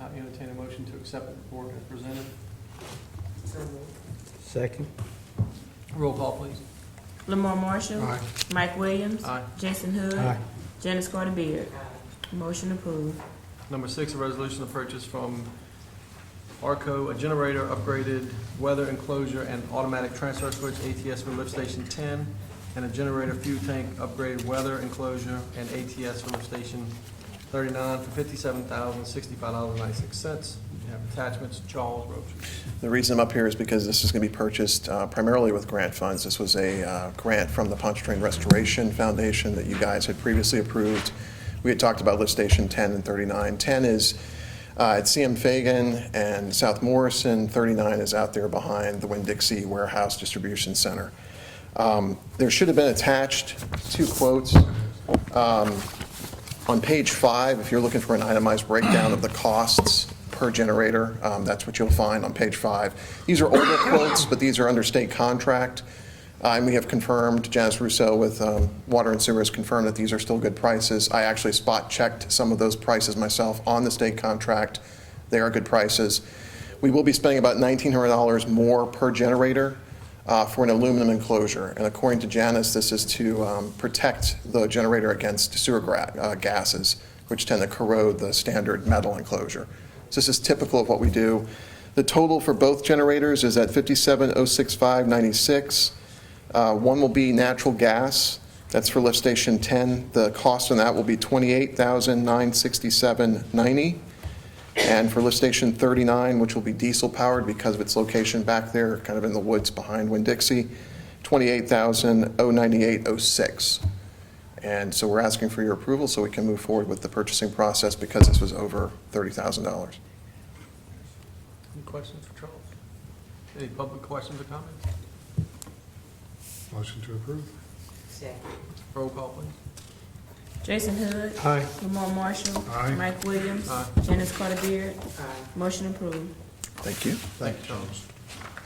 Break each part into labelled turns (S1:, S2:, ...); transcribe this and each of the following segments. S1: I entertain a motion to accept the report as presented.
S2: Second.
S1: Roll call, please.
S3: Lamar Marshall.
S2: Aye.
S3: Mike Williams.
S1: Aye.
S3: Jason Hood.
S2: Aye.
S3: Janice Carter Beard. Motion approved.
S1: Number six, a resolution to purchase from ARCO, a generator, upgraded weather enclosure and automatic transfer switch, ATS for lift station ten, and a generator fuel tank, upgraded weather enclosure and ATS for lift station thirty-nine for fifty-seven thousand, sixty-five dollars and ninety-six cents. You have attachments, Charles Roach.
S4: The reason I'm up here is because this is going to be purchased uh, primarily with grant funds. This was a uh, grant from the Pontchartrain Restoration Foundation that you guys had previously approved. We had talked about lift station 10 and 39. 10 is uh, at CM Fagan and South Morrison. 39 is out there behind the Winn-Dixie Warehouse Distribution Center. Um, There should have been attached two quotes. On page five, if you're looking for an itemized breakdown of the costs per generator, um, that's what you'll find on page five. These are older quotes, but these are under state contract. Uh, And we have confirmed, Janice Russo with um, Water and Sewer has confirmed that these are still good prices. I actually spot-checked some of those prices myself on the state contract. They are good prices. We will be spending about $1,900 more per generator uh, for an aluminum enclosure. And according to Janice, this is to um, protect the generator against sewer gra- uh, gases, which tend to corrode the standard metal enclosure. So this is typical of what we do. The total for both generators is at 57,065.96. Uh, One will be natural gas, that's for lift station 10. The cost on that will be 28,967.90. And for lift station 39, which will be diesel-powered because of its location back there, kind of in the woods behind Winn-Dixie, 28098 And so we're asking for your approval so we can move forward with the purchasing process because this was over $30,000.
S1: Any questions for Charles? Any public questions or comments?
S5: Motion to approve.
S1: Roll call, please.
S3: Jason Hood.
S2: Aye.
S3: Lamar Marshall.
S5: Aye.
S3: Mike Williams.
S1: Aye.
S3: Janice Carter Beard. Motion approved.
S4: Thank you.
S1: Thank you, Charles.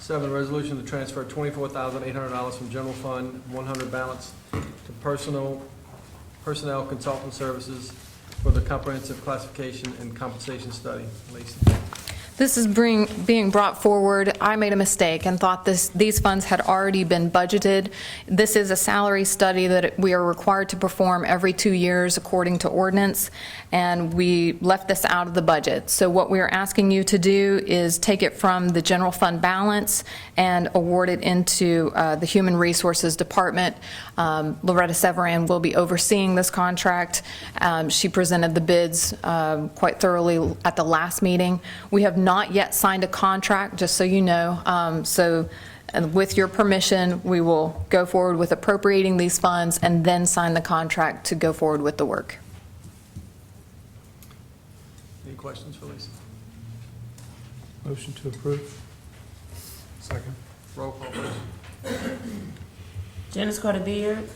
S1: Seven, resolution to transfer twenty-four thousand eight hundred dollars from general fund, one hundred balance to personal, personnel consultant services for the comprehensive classification and compensation study. Lacey,
S6: This is bring, being brought forward. I made a mistake and thought this, these funds had already been budgeted. This is a salary study that we are required to perform every two years according to ordinance, and we left this out of the budget. So what we are asking you to do is take it from the general fund balance and award it into uh, the Human Resources Department. Um, Loretta Severan will be overseeing this contract. Um, She presented the bids um, quite thoroughly at the last meeting. We have not yet signed a contract, just so you know. Um, So and with your permission, we will go forward with appropriating these funds and then sign the contract to go forward with the work.
S1: any questions for Lacey?
S2: Motion to approve.
S5: Second.
S1: Roll call, please.
S3: Janice Carter Beard.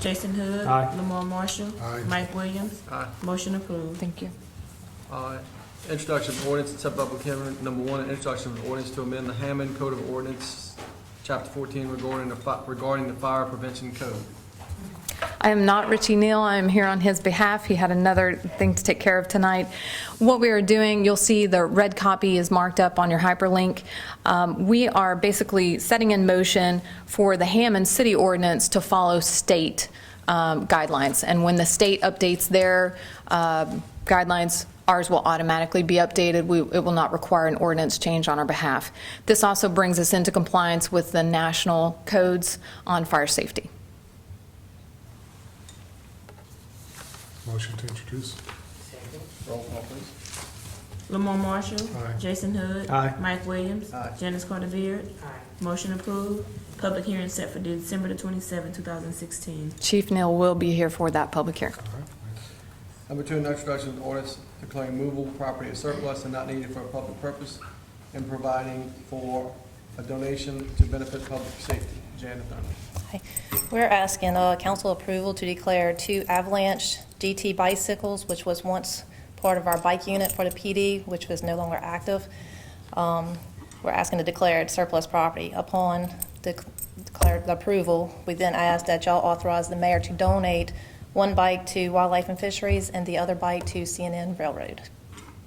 S3: Jason Hood.
S2: Aye.
S3: Lamar Marshall.
S5: Aye.
S3: Mike Williams.
S1: Aye.
S3: Motion approved.
S6: Thank you.
S1: Uh, Introduction of ordinance, accept public hearing, number one, introduction of ordinance to amend the Hammond Code of Ordinance, Chapter fourteen regarding the, fi- regarding the fire prevention code.
S6: I am not Richie Neal. I am here on his behalf. He had another thing to take care of tonight. What we are doing, you'll see the red copy is marked up on your hyperlink. Um, We are basically setting in motion for the Hammond City ordinance to follow state um, guidelines. And when the state updates their um, guidelines, ours will automatically be updated. We- It will not require an ordinance change on our behalf. This also brings us into compliance with the national codes on fire safety.
S5: Motion to introduce.
S1: Roll call, please.
S3: Lamar Marshall.
S5: Aye.
S3: Jason Hood.
S2: Aye.
S3: Mike Williams.
S1: Aye.
S3: Janice Carter Beard. Motion approved. Public hearing set for December the twenty-seventh, two thousand sixteen.
S6: Chief Neal will be here for that public hearing.
S5: All right, thanks.
S1: Number two, an introduction of ordinance declaring movable property as surplus and not needed for a public purpose and providing for a donation to benefit public safety. Janet Thurman.
S7: Hi. We're asking uh, council approval to declare two Avalanche GT bicycles, which was once part of our bike unit for the PD, which was no longer active. Um, We're asking to declare it surplus property. Upon dec- declared approval, we then ask that y'all authorize the mayor to donate one bike to Wildlife and Fisheries and the other bike to CNN Railroad.